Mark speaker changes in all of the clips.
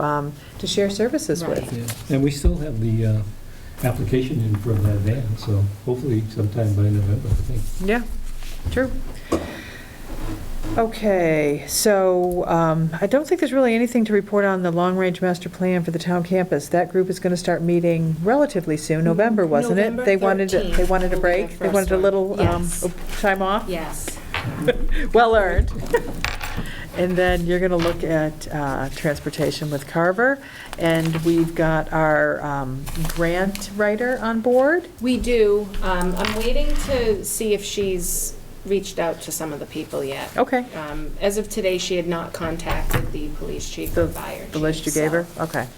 Speaker 1: um, to share services with.
Speaker 2: Right.
Speaker 3: Yeah, And we still have the uh, application in for that van, so hopefully sometime by November, I think.
Speaker 1: Yeah, true. Okay, so um, I don't think there's really anything to report on the long-range master plan for the town campus. That group is going to start meeting relatively soon, November, wasn't it?
Speaker 2: Mm-hmm. November
Speaker 1: They wanted, a- they
Speaker 2: 13th
Speaker 1: wanted a
Speaker 2: will be the
Speaker 1: break, they
Speaker 2: first
Speaker 1: wanted a
Speaker 2: one.
Speaker 1: little um,
Speaker 2: Yes.
Speaker 1: time off.
Speaker 2: Yes.
Speaker 1: Well earned. And then you're going to look at uh, transportation with Carver, and we've got our um, grant writer on board.
Speaker 2: We do. Um, I'm waiting to see if she's reached out to some of the people yet.
Speaker 1: Okay,
Speaker 2: Um, As of today, she had not contacted the police chief or fire chief.
Speaker 1: the list you gave her,
Speaker 2: so-
Speaker 1: okay.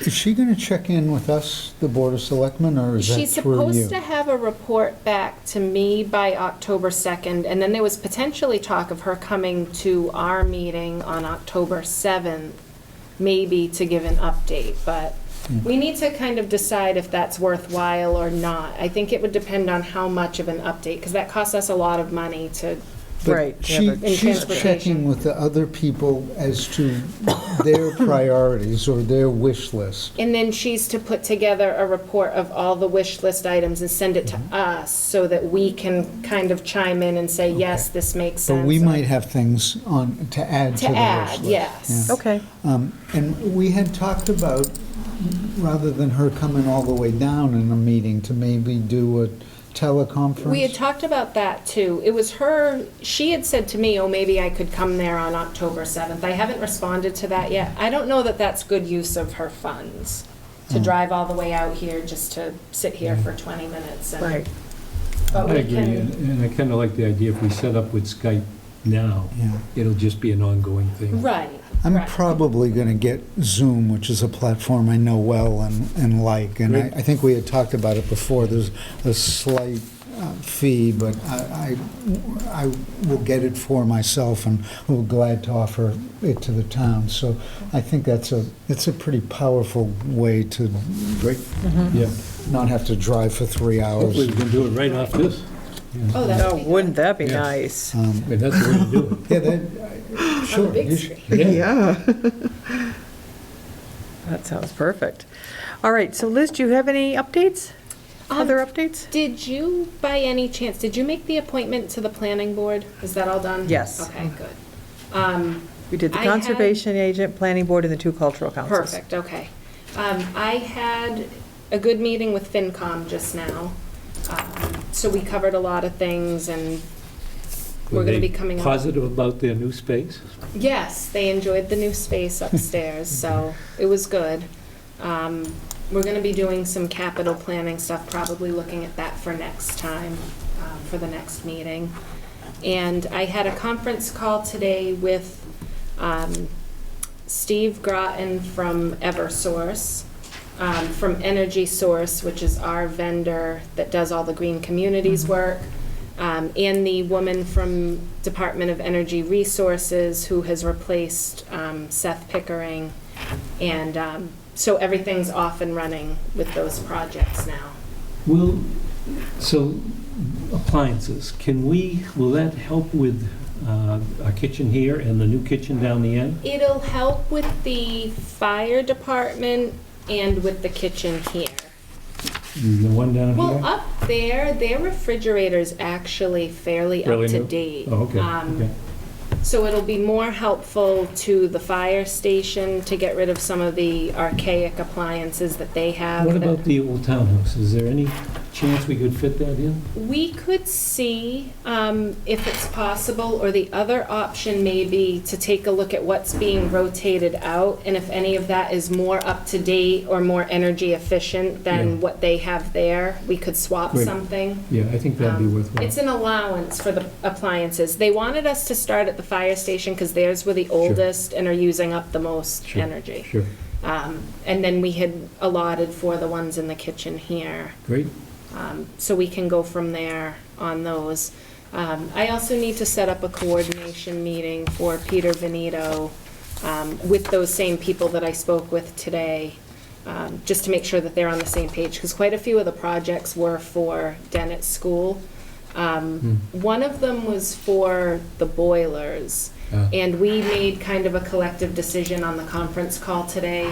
Speaker 4: Is she going to check in with us, the Board of Selectmen, or is that
Speaker 2: She's
Speaker 4: through
Speaker 2: supposed
Speaker 4: you?
Speaker 2: to have a report back to me by October 2nd, and then there was potentially talk of her coming to our meeting on October 7th, maybe to give an update, but
Speaker 4: Hmm.
Speaker 2: we need to kind of decide if that's worthwhile or not. I think it would depend on how much of an update, because that costs us a lot of money to,
Speaker 4: But
Speaker 1: Right, yeah,
Speaker 4: she-
Speaker 1: but-
Speaker 2: In
Speaker 4: She's
Speaker 2: transportation.
Speaker 4: checking with the other people as to their priorities or their wish list.
Speaker 2: and then she's to put together a report of all the wish list items and send it to
Speaker 4: Mm-hmm.
Speaker 2: us, so that we can kind of chime in and say, yes, this makes sense.
Speaker 4: But we
Speaker 2: or-
Speaker 4: might have things on, to add to
Speaker 2: To
Speaker 4: the wish
Speaker 2: add,
Speaker 4: list.
Speaker 2: yes.
Speaker 4: yeah.
Speaker 1: Okay,
Speaker 4: Um, And we had talked about, rather than her coming all the way down in a meeting, to maybe do a teleconference.
Speaker 2: We had talked about that too. It was her, she had said to me, oh, maybe I could come there on October 7th. I haven't responded to that yet. I don't know that that's good use of her funds, to drive all the way out here just to sit here for 20 minutes. and-
Speaker 1: right.
Speaker 2: But
Speaker 3: I
Speaker 2: we
Speaker 3: agree,
Speaker 2: can-
Speaker 3: and and I kind of like the idea, if we set up with Skype now,
Speaker 4: Yeah.
Speaker 3: it'll just be an ongoing thing.
Speaker 2: Right.
Speaker 4: I'm
Speaker 2: right.
Speaker 4: probably going to get Zoom, which is a platform I know well and, and like, and I,
Speaker 3: Great.
Speaker 4: I think we had talked about it before, there's a slight uh, fee, but I, I, I will get it for myself and will glad to offer it to the town, so I think that's a, it's a pretty powerful way to
Speaker 3: Yeah,
Speaker 4: not have to drive for three
Speaker 3: hopefully
Speaker 4: hours.
Speaker 3: we can do it right off this.
Speaker 2: Oh, that
Speaker 1: No,
Speaker 2: would be
Speaker 1: wouldn't
Speaker 2: good.
Speaker 1: that be
Speaker 3: Yeah.
Speaker 1: nice?
Speaker 4: Um,
Speaker 3: And that's the way to do
Speaker 4: Yeah, that, I-
Speaker 2: On the
Speaker 4: sure.
Speaker 2: big
Speaker 4: you should-
Speaker 2: screen.
Speaker 3: it.
Speaker 1: That sounds perfect. All right, so Liz, do you have any updates?
Speaker 2: Um,
Speaker 1: Other updates?
Speaker 2: Did you, by any chance, did you make the appointment to the planning board? Is that all done?
Speaker 1: Yes.
Speaker 2: Okay, good. Um,
Speaker 1: We did the
Speaker 2: I had-
Speaker 1: conservation agent, planning board, and the two cultural councils.
Speaker 2: Perfect, okay. Um, I had a good meeting with FinCom just now, Um, so we covered a lot of things, and we're
Speaker 3: Were
Speaker 2: gonna be
Speaker 3: they
Speaker 2: coming up.
Speaker 3: Positive about their new space?
Speaker 2: Yes, they enjoyed the new space upstairs, so it was good. Um, We're gonna be doing some capital planning stuff, probably looking at that for next time, um, for the next meeting. And I had a conference call today with um, Steve Groton from Eversource, um, from Energy Source, which is our vendor that does all the green communities work, um, and the woman from Department of Energy Resources who has replaced um, Seth Pickering. And um, so everything's off and running with those projects now.
Speaker 3: Will, so appliances, can we, will that help with uh, our kitchen here and the new kitchen down the end?
Speaker 2: It'll help with the fire department and with the kitchen here.
Speaker 3: And The one down here?
Speaker 2: Well, up there, their refrigerator's actually fairly up
Speaker 3: Really
Speaker 2: to
Speaker 3: new?
Speaker 2: date.
Speaker 3: Oh, okay,
Speaker 2: Um,
Speaker 3: okay.
Speaker 2: So it'll be more helpful to the fire station to get rid of some of the archaic appliances that they have.
Speaker 3: What
Speaker 2: that-
Speaker 3: about the old townhouse? Is there any chance we could fit that in?
Speaker 2: We could see um, if it's possible, or the other option may be to take a look at what's being rotated out, and if any of that is more up-to-date or more energy efficient
Speaker 3: Yeah.
Speaker 2: than what they have there, we could swap
Speaker 3: Right.
Speaker 2: something.
Speaker 3: Yeah, I think that'd be
Speaker 2: Um,
Speaker 3: worthwhile.
Speaker 2: It's an allowance for the appliances. They wanted us to start at the fire station because theirs were the oldest and are using up the most
Speaker 3: Sure,
Speaker 2: energy.
Speaker 3: Sure,
Speaker 2: Um, And then we had allotted for the ones in the kitchen here,
Speaker 3: great.
Speaker 2: Um, so we can go from there on those. Um, I also need to set up a coordination meeting for Peter Venito um, with those same people that I spoke with today, um, just to make sure that they're on the same page, because quite a few of the projects were for Dennett School.
Speaker 3: Hmm.
Speaker 2: Um, One of them was for the boilers,
Speaker 3: Ah.
Speaker 2: and we made kind of a collective decision on the conference call today